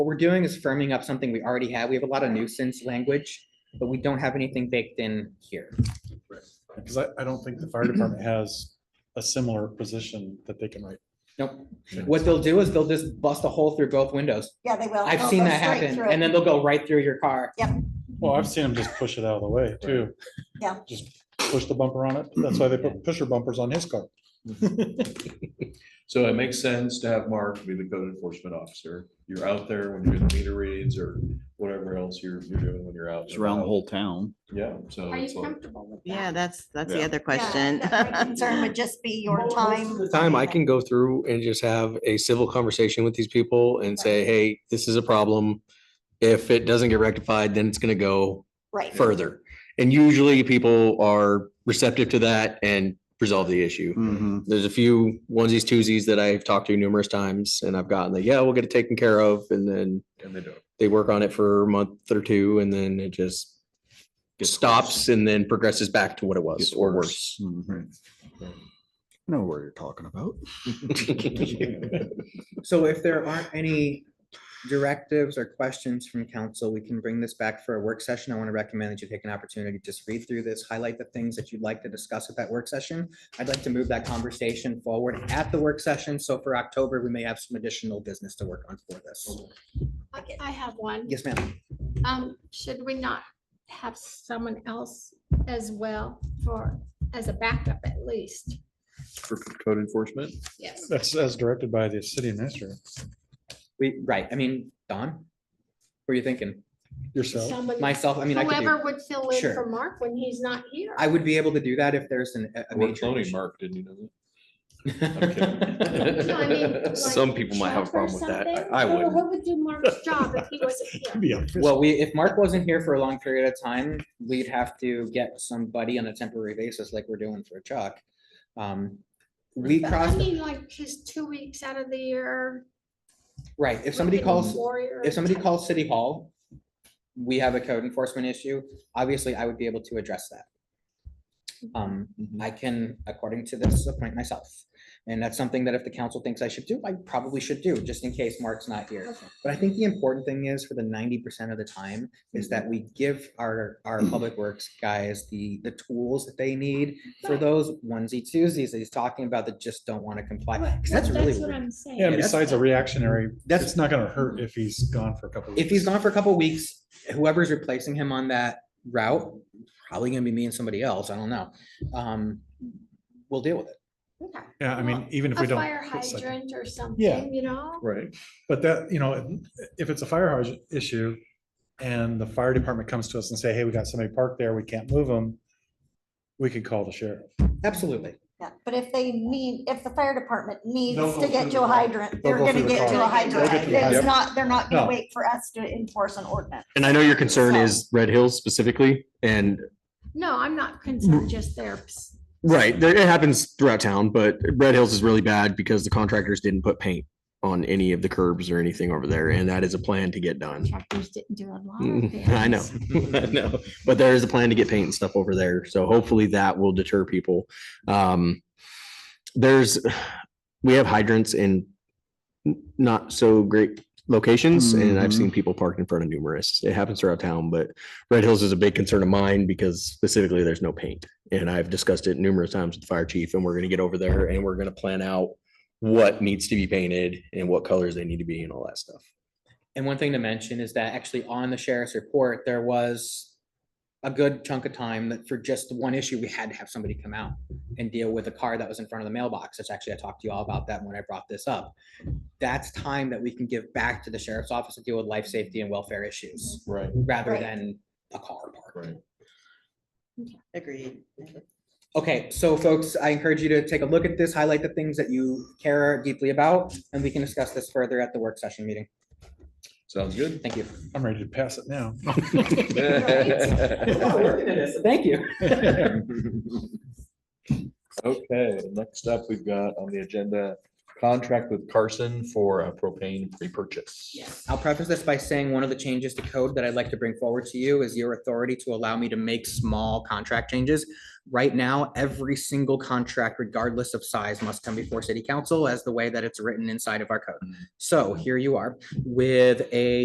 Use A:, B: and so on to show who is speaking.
A: What we're doing is firming up something we already have. We have a lot of nuisance language, but we don't have anything baked in here.
B: Because I, I don't think the fire department has a similar position that they can write.
A: Nope. What they'll do is they'll just bust a hole through both windows.
C: Yeah, they will.
A: I've
C: They'll
A: seen
C: go
A: that
C: straight
A: happen,
C: through
A: and
C: it.
A: then they'll go right through your car.
B: Well,
A: Mm-hmm.
B: I've seen them just push it out of the way too.
C: Yeah.
B: Just push the bumper on it. That's why they put pusher bumpers on his car.
D: So it makes sense to have Mark be the code enforcement officer. You're out there when you're in the meter reads or whatever else you're, you're doing when you're out.
E: It's around the whole town.
D: Yeah, so
F: Are
D: it's
F: you
D: like,
F: comfortable with that?
G: Yeah, that's, that's the
E: Yeah.
G: other
C: Yeah,
G: question.
C: that My concern would just be your
H: Most- most of
C: time.
H: the Time I can go through and just have a civil conversation with these people and say, hey, this is a problem. If it doesn't get rectified, then it's gonna go
C: Right.
H: further. And usually people are receptive to that and resolve the issue.
E: Mhm.
H: There's a few onesies, twosies that I've talked to numerous times and I've gotten the, yeah, we'll get it taken care of. And then
D: and they don't.
H: they work on it for a month or two and then it just
E: Gets
H: stops and then progresses back to what it was
E: Gets
H: or worse.
E: Mhm. Know where you're talking about.
A: So if there aren't any directives or questions from council, we can bring this back for a work session. I want to recommend that you take an opportunity, to just read through this, highlight the things that you'd like to discuss at that work session. I'd like to move that conversation forward at the work session. So for October, we may have some additional business to work on for this.
F: I I have one.
A: Yes, ma'am.
F: Um, should we not have someone else as well for, as a backup at least?
D: For code enforcement,
F: Yes.
B: That's as directed by the city administrator
A: We, right, I mean, Don? What are you thinking?
B: yourself.
F: Someone,
A: Myself, I mean, I could do,
F: whoever would fill in
A: Sure.
F: for Mark when he's not here.
A: I would be able to do that if there's an, a- a
D: we're
A: major.
D: cloning
A: issue.
D: Mark, didn't you know
F: No, I mean, like
D: that?
H: Some people might have a
F: Chuck or
H: problem with that. I-
F: something?
H: I
F: Who-
H: wouldn't.
F: Who would do Mark's job if he wasn't here?
B: Yeah.
A: Well, we, if Mark wasn't here for a long period of time, we'd have to get somebody on a temporary basis like we're doing for Chuck. Um, We
F: But I
A: cross,
F: mean, like, his two weeks out of the year.
A: right, if somebody
F: working
A: calls,
F: warrior
A: if somebody
F: type.
A: calls City Hall, we have a code enforcement issue, obviously I would be able to address that. Um, I can, according to this, appoint myself. And that's something that if the council thinks I should do, I probably should do, just in case Mark's not here.
F: Okay.
A: But I think the important thing is for the ninety percent of the time is that we give our, our public works guys the, the tools that they need for
F: Right.
A: those onesie twosies that he's talking about that just don't want to comply.
F: Right,
A: 'Cause
F: no,
A: that's really
F: what
A: weird.
F: I'm saying.
B: Yeah, and besides a reactionary,
A: That's-
B: it's not gonna hurt if he's gone for a couple.
A: If he's
B: weeks.
A: gone for a couple weeks, whoever's replacing him on that route, probably gonna be me and somebody else, I don't know. Um, we'll deal with it.
F: Okay.
B: Yeah, I mean,
F: Well,
B: even if
F: A
B: we don't.
F: fire
B: put second-
F: hydrant or something, you know?
D: Right,
B: But that, you know, if it's a fire hydrant issue and the fire department comes to us and say, hey, we got somebody parked there, we can't move them. We could call the sheriff.
A: Absolutely.
C: Yeah, But if they need, if the fire department needs
B: They'll go
C: to get
B: through
C: to
B: the call.
C: a hydrant,
B: They'll
C: they're
B: go
C: gonna
B: through the
C: get to a
B: call. They'll
C: hydrant.
B: get to the
C: It's
B: hydrant.
C: not, they're not gonna
B: No.
C: wait for us to enforce an ordinance.
H: And I know your concern
C: So-
H: is Red Hills specifically, and
F: No, I'm not
B: Mm.
F: concerned just there. Psst.
H: right, there, it happens throughout town, but Red Hills is really bad because the contractors didn't put paint on any of the curbs or anything over there, and that is a plan to get done.
F: Contractors didn't do a lot of
H: Mm, I know,
F: things.
H: I know, but there is a plan to get paint and stuff over there, so hopefully that will deter people. Um, there's, we have hydrants in n- not so great locations, and I've seen people parked in front of numerous. It happens throughout town, but Red Hills is a big concern of mine because specifically there's no paint. And I've discussed it numerous times with the fire chief, and we're gonna get over there and we're gonna plan out what needs to be painted and what colors they need to be and all that stuff.
A: And one thing to mention is that actually on the sheriff's report, there was a good chunk of time that for just one issue, we had to have somebody come out and deal with a car that was in front of the mailbox. That's actually, I talked to you all about that when I brought this up. That's time that we can give back to the sheriff's office to deal with life safety and welfare issues
D: right.
A: rather
C: Right.
A: than a car park.
D: Right.
G: Agreed.
A: Okay, so folks, I encourage you to take a look at this, highlight the things that you care deeply about, and we can discuss this further at the work session meeting.
D: Sounds good.
A: Thank you.
B: I'm ready to pass it now.
A: Thank you.
D: Okay, next up, we've got on the agenda, contract with Carson for a propane pre-purchase.
A: I'll preface this by saying one of the changes to code that I'd like to bring forward to you is your authority to allow me to make small contract changes. Right now, every single contract, regardless of size, must come before city council as the way that it's written inside of our code. So here you are with a